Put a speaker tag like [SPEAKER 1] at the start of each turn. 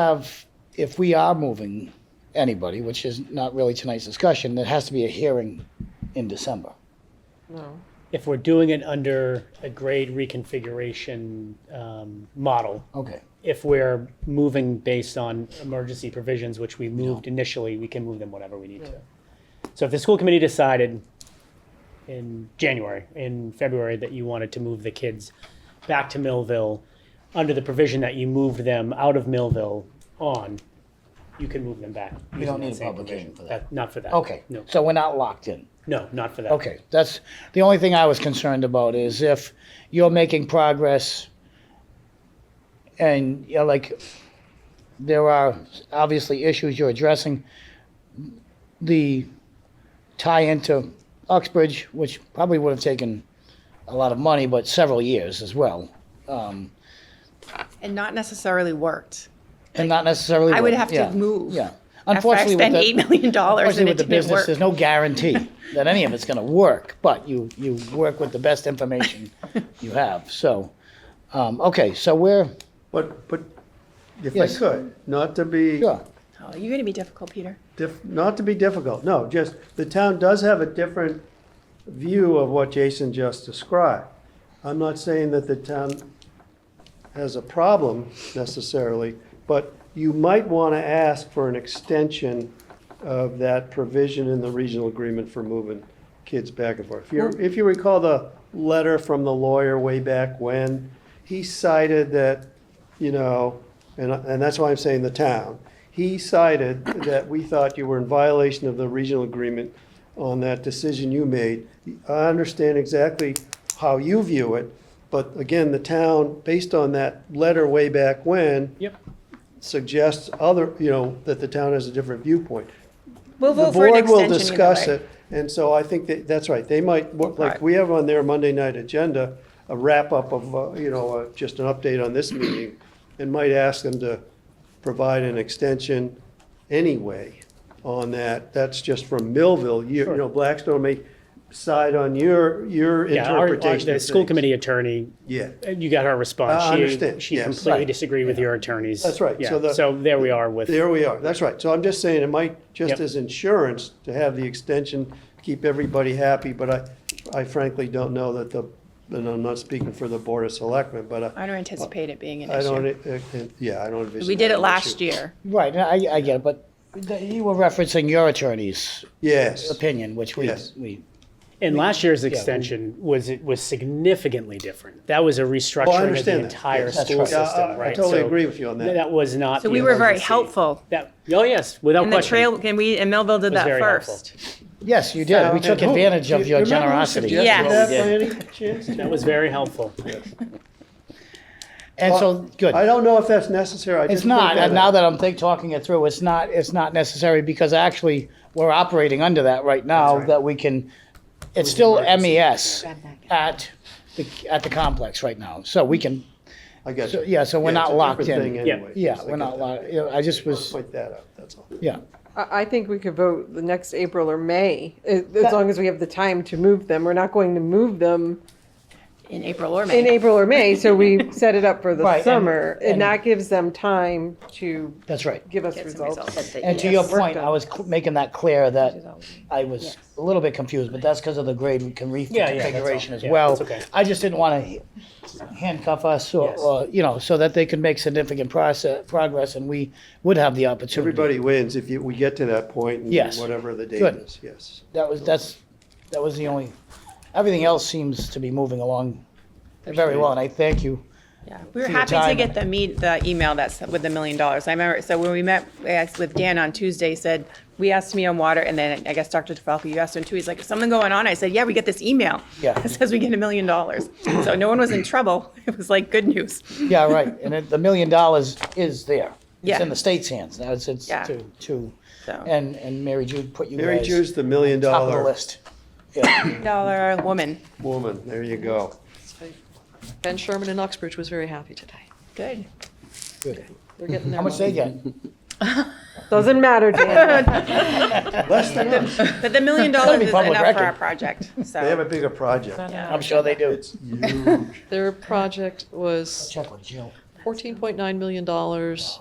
[SPEAKER 1] have, if we are moving anybody, which is not really tonight's discussion, there has to be a hearing in December.
[SPEAKER 2] If we're doing it under a grade reconfiguration um, model,
[SPEAKER 1] Okay.
[SPEAKER 2] if we're moving based on emergency provisions, which we moved initially, we can move them whatever we need to. So if the school committee decided in January, in February, that you wanted to move the kids back to Millville, under the provision that you moved them out of Millville on, you can move them back.
[SPEAKER 1] We
[SPEAKER 2] using
[SPEAKER 1] don't
[SPEAKER 2] that
[SPEAKER 1] need a
[SPEAKER 2] same
[SPEAKER 1] public hearing
[SPEAKER 2] provision.
[SPEAKER 1] for that.
[SPEAKER 2] Not for that.
[SPEAKER 1] Okay,
[SPEAKER 2] No,
[SPEAKER 1] so we're not locked in.
[SPEAKER 2] no, not for that.
[SPEAKER 1] Okay, that's, the only thing I was concerned about is if you're making progress and, you know, like, there are obviously issues you're addressing, the tie into Uxbridge, which probably would have taken a lot of money, but several years as well, um,
[SPEAKER 3] and not necessarily worked.
[SPEAKER 1] and not necessarily.
[SPEAKER 3] I would have to
[SPEAKER 1] yeah,
[SPEAKER 3] move
[SPEAKER 1] Yeah.
[SPEAKER 3] After I
[SPEAKER 1] Unfortunately, with
[SPEAKER 3] spent
[SPEAKER 1] the-
[SPEAKER 3] eight million dollars and
[SPEAKER 1] Unfortunately,
[SPEAKER 3] it
[SPEAKER 1] with the
[SPEAKER 3] didn't
[SPEAKER 1] business,
[SPEAKER 3] work.
[SPEAKER 1] there's no guarantee that any of it's gonna work, but you, you work with the best information you have, so, um, okay, so we're,
[SPEAKER 4] But, but if I
[SPEAKER 1] Yes.
[SPEAKER 4] could, not to be,
[SPEAKER 1] sure,
[SPEAKER 3] Oh, you're going to be difficult, Peter.
[SPEAKER 4] dif- not to be difficult, no, just, the town does have a different view of what Jason just described. I'm not saying that the town has a problem necessarily, but you might want to ask for an extension of that provision in the regional agreement for moving kids back and forth. If you, if you recall the letter from the lawyer way back when, he cited that, you know, and, and that's why I'm saying the town. He cited that we thought you were in violation of the regional agreement on that decision you made. I understand exactly how you view it, but again, the town, based on that letter way back when,
[SPEAKER 2] Yep.
[SPEAKER 4] suggests other, you know, that the town has a different viewpoint.
[SPEAKER 3] We'll
[SPEAKER 4] The
[SPEAKER 3] vote for an
[SPEAKER 4] board
[SPEAKER 3] extension.
[SPEAKER 4] will
[SPEAKER 3] either
[SPEAKER 4] discuss
[SPEAKER 3] way.
[SPEAKER 4] it, and so I think that, that's right, they might, what- like,
[SPEAKER 3] Right.
[SPEAKER 4] we have on their Monday night agenda, a wrap-up of, uh, you know, uh, just an update on this meeting, and might ask them to provide an extension anyway on that, that's just from Millville, you, you know, Blackstone may side on your, your
[SPEAKER 2] Yeah, our- our-
[SPEAKER 4] interpretation
[SPEAKER 2] the
[SPEAKER 4] of
[SPEAKER 2] school
[SPEAKER 4] things.
[SPEAKER 2] committee attornee
[SPEAKER 4] Yeah.
[SPEAKER 2] Uh, You got her response.
[SPEAKER 4] I
[SPEAKER 2] She-
[SPEAKER 4] understand.
[SPEAKER 2] She
[SPEAKER 4] Yes.
[SPEAKER 2] completely
[SPEAKER 4] Right.
[SPEAKER 2] disagreed with your attorneys.
[SPEAKER 4] That's right.
[SPEAKER 2] Yeah.
[SPEAKER 4] So the-
[SPEAKER 2] So there we are with,
[SPEAKER 4] There we are, that's right. So I'm just saying, it might, just
[SPEAKER 2] Yep.
[SPEAKER 4] as insurance, to have the extension, keep everybody happy, but I, I frankly don't know that the, and I'm not speaking for the Board of Selectmen, but I,
[SPEAKER 3] I don't anticipate it being an
[SPEAKER 4] I don't,
[SPEAKER 3] issue.
[SPEAKER 4] uh, uh, yeah, I don't envision.
[SPEAKER 3] We did it
[SPEAKER 4] that an
[SPEAKER 3] last
[SPEAKER 4] issue.
[SPEAKER 3] year.
[SPEAKER 1] right, I, I get it, but th- you were referencing your attorney's
[SPEAKER 4] Yes,
[SPEAKER 1] opinion, which we,
[SPEAKER 4] Yes.
[SPEAKER 1] we,
[SPEAKER 2] and last year's extension was, it was significantly different. That was a restructuring of the
[SPEAKER 4] Oh, understand that.
[SPEAKER 2] entire
[SPEAKER 4] Yes,
[SPEAKER 1] that's
[SPEAKER 2] school
[SPEAKER 1] right.
[SPEAKER 4] Yeah, I-
[SPEAKER 2] system,
[SPEAKER 4] I
[SPEAKER 2] right?
[SPEAKER 4] totally
[SPEAKER 2] So
[SPEAKER 4] agree with you on that.
[SPEAKER 2] That was not.
[SPEAKER 3] So
[SPEAKER 2] the
[SPEAKER 3] we were very
[SPEAKER 2] emergency-
[SPEAKER 3] helpful.
[SPEAKER 2] That, oh, yes, without
[SPEAKER 3] And the
[SPEAKER 2] question.
[SPEAKER 3] trail, and we, and Millville did
[SPEAKER 2] was
[SPEAKER 3] that
[SPEAKER 2] very helpful.
[SPEAKER 3] first.
[SPEAKER 1] yes, you did, we took
[SPEAKER 4] And who-
[SPEAKER 1] advantage of
[SPEAKER 4] do you
[SPEAKER 1] your
[SPEAKER 4] remember who
[SPEAKER 1] generosity.
[SPEAKER 4] suggested
[SPEAKER 3] Yes.
[SPEAKER 4] that by any chance?
[SPEAKER 2] That was very helpful.
[SPEAKER 1] And so, good.
[SPEAKER 4] I don't know if that's necessary. I
[SPEAKER 1] It's
[SPEAKER 4] just put
[SPEAKER 1] not, and now
[SPEAKER 4] out.
[SPEAKER 1] that I'm think, talking it through, it's not, it's not necessary because actually we're operating under that right now
[SPEAKER 4] right.
[SPEAKER 1] that we can, it's still MES at the, at the complex right now. So we can,
[SPEAKER 4] I get
[SPEAKER 1] so-
[SPEAKER 4] you.
[SPEAKER 1] yeah, so we're
[SPEAKER 4] Yeah, it's
[SPEAKER 1] not
[SPEAKER 4] a
[SPEAKER 1] locked
[SPEAKER 4] different thing
[SPEAKER 1] in.
[SPEAKER 2] Yeah.
[SPEAKER 4] anyway.
[SPEAKER 1] Yeah,
[SPEAKER 4] Yes, I
[SPEAKER 1] we're
[SPEAKER 4] get
[SPEAKER 1] not
[SPEAKER 4] that.
[SPEAKER 1] locked, you know, I just was,
[SPEAKER 4] Point that out, that's all.
[SPEAKER 1] yeah.
[SPEAKER 5] I I think we could vote the next April or May, uh, as as long as we have the time to move them. We're not going to move them
[SPEAKER 3] In April or
[SPEAKER 5] in
[SPEAKER 3] May.
[SPEAKER 5] April or May, so we set it up for
[SPEAKER 1] Right, and-
[SPEAKER 5] the summer.
[SPEAKER 1] and-
[SPEAKER 5] And that gives them time to
[SPEAKER 1] That's right.
[SPEAKER 5] give us
[SPEAKER 3] Get some
[SPEAKER 5] results.
[SPEAKER 3] results.
[SPEAKER 1] And to your
[SPEAKER 5] Yes.
[SPEAKER 1] point, I was cl- making that clear that
[SPEAKER 3] always-
[SPEAKER 1] I was a little bit confused, but that's because of the grade we can
[SPEAKER 2] Yeah, yeah, that's
[SPEAKER 1] reconfiguration
[SPEAKER 2] all.
[SPEAKER 1] as
[SPEAKER 2] Yeah,
[SPEAKER 1] well.
[SPEAKER 2] that's okay.
[SPEAKER 1] I just didn't want to handcuff us or,
[SPEAKER 2] Yes.
[SPEAKER 1] or, you know, so that they could make significant process, progress and we would have the opportunity.
[SPEAKER 4] Everybody wins if you, we get to that point and
[SPEAKER 1] Yes.
[SPEAKER 4] whatever the date
[SPEAKER 1] Good.
[SPEAKER 4] is, yes.
[SPEAKER 1] That was, that's, that was the only, everything else seems to be moving along very well, and I thank you.
[SPEAKER 3] Yeah, we were
[SPEAKER 1] for your
[SPEAKER 3] happy to
[SPEAKER 1] time.
[SPEAKER 3] get the meet, the email that's with the million dollars. I remember, so when we met we asked with Dan on Tuesday, he said, we asked me on water, and then I guess Dr. DeFalco, you asked him too, he's like, "Is something going on? I said, yeah, we get this email.
[SPEAKER 1] Yeah.
[SPEAKER 3] That says we get a million dollars. So no one was in trouble. It was like good news.
[SPEAKER 1] Yeah, right, and it- the million dollars is there. It's
[SPEAKER 3] Yeah.
[SPEAKER 1] in the state's hands, now it's, it's
[SPEAKER 3] Yeah. Oh.
[SPEAKER 1] to, to,
[SPEAKER 3] So.
[SPEAKER 1] and, and Mary Jude put you
[SPEAKER 4] Mary
[SPEAKER 1] guys
[SPEAKER 4] Ju's the million
[SPEAKER 1] top of the
[SPEAKER 4] dollar
[SPEAKER 1] list. Yeah.
[SPEAKER 3] Dollar woman.
[SPEAKER 4] woman, there you go.
[SPEAKER 6] Ben Sherman in Uxbridge was very happy today.
[SPEAKER 3] Good.
[SPEAKER 1] Good.
[SPEAKER 6] They're getting
[SPEAKER 1] How
[SPEAKER 6] their
[SPEAKER 1] much
[SPEAKER 6] money.
[SPEAKER 1] they get?
[SPEAKER 5] Doesn't matter, Dan.
[SPEAKER 4] Less than us,
[SPEAKER 3] But the million dollars
[SPEAKER 1] be
[SPEAKER 3] is
[SPEAKER 1] public
[SPEAKER 3] enough for our
[SPEAKER 1] record.
[SPEAKER 3] project,
[SPEAKER 1] Uh,
[SPEAKER 4] they have a
[SPEAKER 3] so.
[SPEAKER 4] bigger project.
[SPEAKER 1] I'm sure they do.
[SPEAKER 4] It's huge.
[SPEAKER 6] Their project was
[SPEAKER 1] Check with Jill.
[SPEAKER 6] fourteen point nine million dollars.